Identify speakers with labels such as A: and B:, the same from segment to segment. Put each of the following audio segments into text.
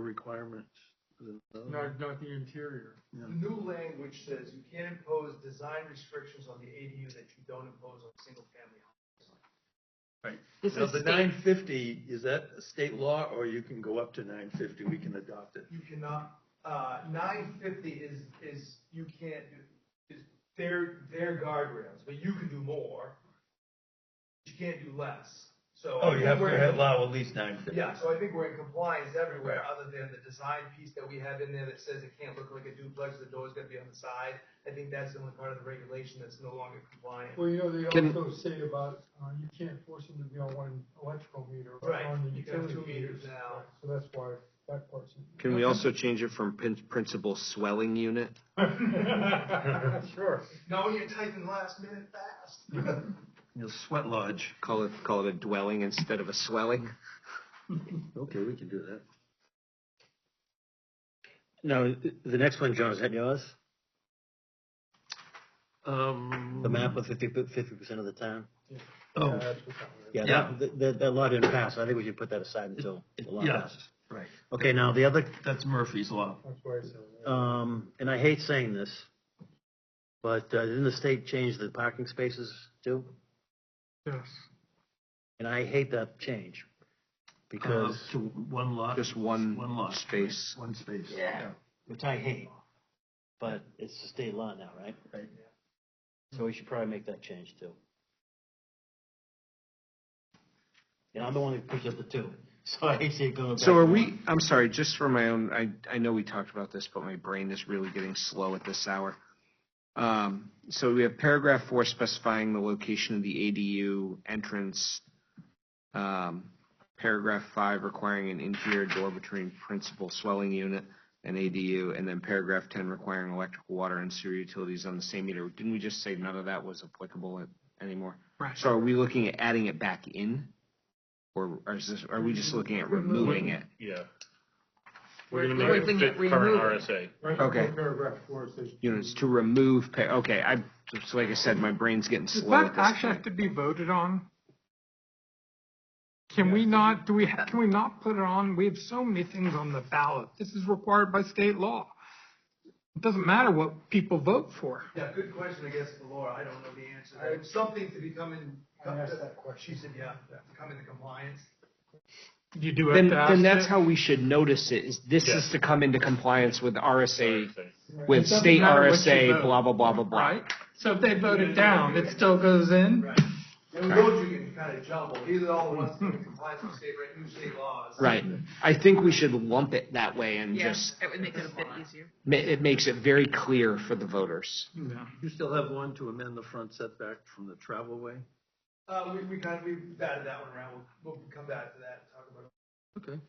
A: requirements. Is it those?
B: Not, not the interior.
A: Yeah.
C: The new language says you can't impose design restrictions on the ADU that you don't impose on single-family homes.
D: This
A: Now,
D: is
A: the
D: state,
A: nine fifty, is that a state law or you can go up to nine fifty, we can adopt it?
C: You cannot, uh, nine fifty is, is, you can't, do- is their, their guardrails, but you can do more. You can't do less, so.
A: Oh, you have
C: we're-
A: to allow at least nine fifty.
C: Yeah, so I think we're in compliance everywhere,
A: Right.
C: other than the design piece that we have in there that says it can't look like a duplex, the door's gonna be on the side. I think that's the only part of the regulation that's no longer compliant.
B: Well, you know, they
E: Can-
B: also say about, uh, you can't force them to be on one electrical meter or
C: Right,
B: on the
C: you can have
B: utility
C: two meters
B: meters.
C: now.
B: So that's why that part's. in
E: Can we also change it from prin- principal swelling unit?
B: there. Sure.
C: Now you're typing last minute fast.
A: You'll sweat lodge.
E: Call it, call it a dwelling instead of a swelling?
A: Okay, we can do that.
F: No, the next one, John, is that yours?
A: Um.
F: The map of fifty percent of the town?
A: Oh.
B: Yeah, that's what that was.
F: Yeah,
A: Yeah.
F: that, th- that, that law didn't pass, I think we should put that aside until the law
A: Yeah.
F: passes.
A: Right.
F: Okay, now the other,
A: That's Murphy's law.
B: That's why I said. that.
F: um, and I hate saying this, but uh, didn't the state change the parking spaces too?
B: Yes.
F: And I hate that change, because,
A: Uh, To one lot.
E: Just one
A: One lot.
E: space.
A: One space.
C: Yeah.
F: which I hate, but it's the state law now, right?
A: Right.
F: So we should probably make that change too. And I'm the one who pushed up the two, so I hate seeing it going back.
E: So are
F: to
E: we,
F: one.
E: I'm sorry, just for my own, I, I know we talked about this, but my brain is really getting slow at this hour. Um, so we have paragraph four specifying the location of the ADU entrance. Um, paragraph five requiring an interior door between principal swelling unit and ADU, and then paragraph ten requiring electrical, water, and sewer utilities on the same meter. Didn't we just say none of that was applicable a- anymore?
B: Right.
E: So are we looking at adding it back in? Or or is this, are we just looking at removing it?
G: Yeah.
C: We're
G: We're
C: we're
G: gonna make
C: looking
G: it
C: at
G: fit current
C: removing
G: RSA.
B: Right,
E: Okay.
B: Paragraph four says.
E: units to remove pay, okay, I, just like I said, my brain's getting
H: Does
E: slow
H: that
E: at this
H: actually have
E: point.
H: to be voted on? Can we not, do we, ha- can we not put it on? We have so many things on the ballot. This is required by state law. It doesn't matter what people vote for.
C: Yeah, good question, I guess, for Laura, I don't know the answer. There was Something to become in.
B: I asked that question.
C: She said, yeah, to come into compliance.
H: You do have
E: Then,
H: to ask.
E: then that's
H: it.
E: how we should notice it, is this is to come into compliance with RSA,
H: It
E: with
H: doesn't
E: state
H: matter what you
E: RSA,
H: vote,
E: blah, blah, blah, blah, blah.
H: Right? So if they vote it down, it still goes in?
C: Right. And with those, you can kind of jumble, either all at once, come into compliance with state, reg- new state laws.
E: Right, I think we should lump it that way and
D: yes,
E: just,
D: it would make it a bit easier.
E: ma- it makes it very clear for the voters.
H: No.
A: You still have one to amend the front setback from the travelway?
C: Uh, we, we kind of, we batted that one around, we'll, we'll come back to that and talk about
A: Okay.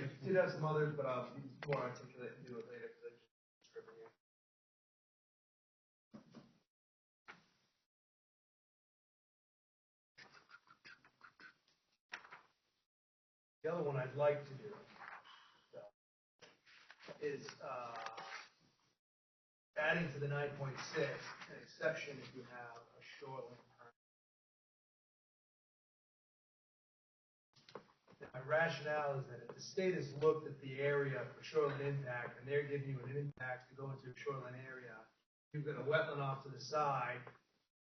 C: it. I did have some others, but I'll be more articulate and do it later, because I just scribbled here. The other one I'd like to do so, is, uh, adding to the nine point six, an exception if you have a shoreline permit. My rationale is that if the state has looked at the area for shoreline impact and they're giving you an impact to go into a shoreline area, you've got a wetland off to the side,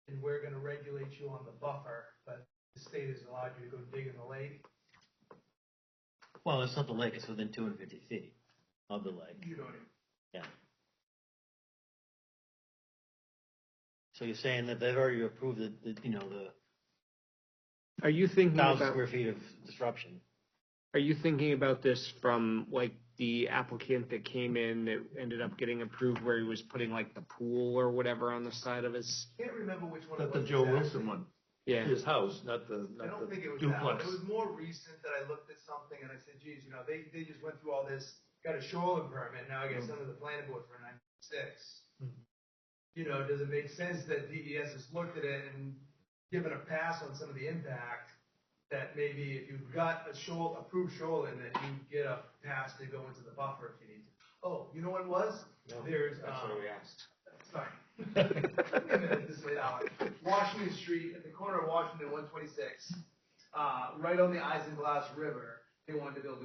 C: and we're gonna regulate you on the buffer, but the state has allowed you to go dig in the lake,
F: Well, it's not the lake, it's within two hundred fifty feet of the lake,
C: you don't,
F: yeah. So you're saying that they've already approved the, the, you know, the
E: Are you thinking
F: thousand
E: about,
F: square feet of disruption.
E: are you thinking about this from like the applicant that came in that ended up getting approved where he was putting like the pool or whatever on the side of his?
C: can't remember which one it
A: Not the
C: was
A: Joe
C: exactly.
A: Wilson one,
E: Yeah.
A: his house, not the,
C: I
A: not
C: don't
A: the
C: think it was that one.
A: duplex.
C: It was more recent that I looked at something and I said, geez, you know, they, they just went through all this, got a shoreline permit, now I guess
A: Mm.
C: under the planning board for nine six. You know, does it make sense that DES has looked at it and given a pass on some of the impact? That maybe if you've got a shore, approved shoreline, that you get a pass to go into the buffer if you need to. Oh, you know what it was? There's, um,
E: asked.
C: sorry. Wait a minute, this late hour. Washington Street, at the corner of Washington one twenty-six, uh, right on the Isinglass River, they wanted to build a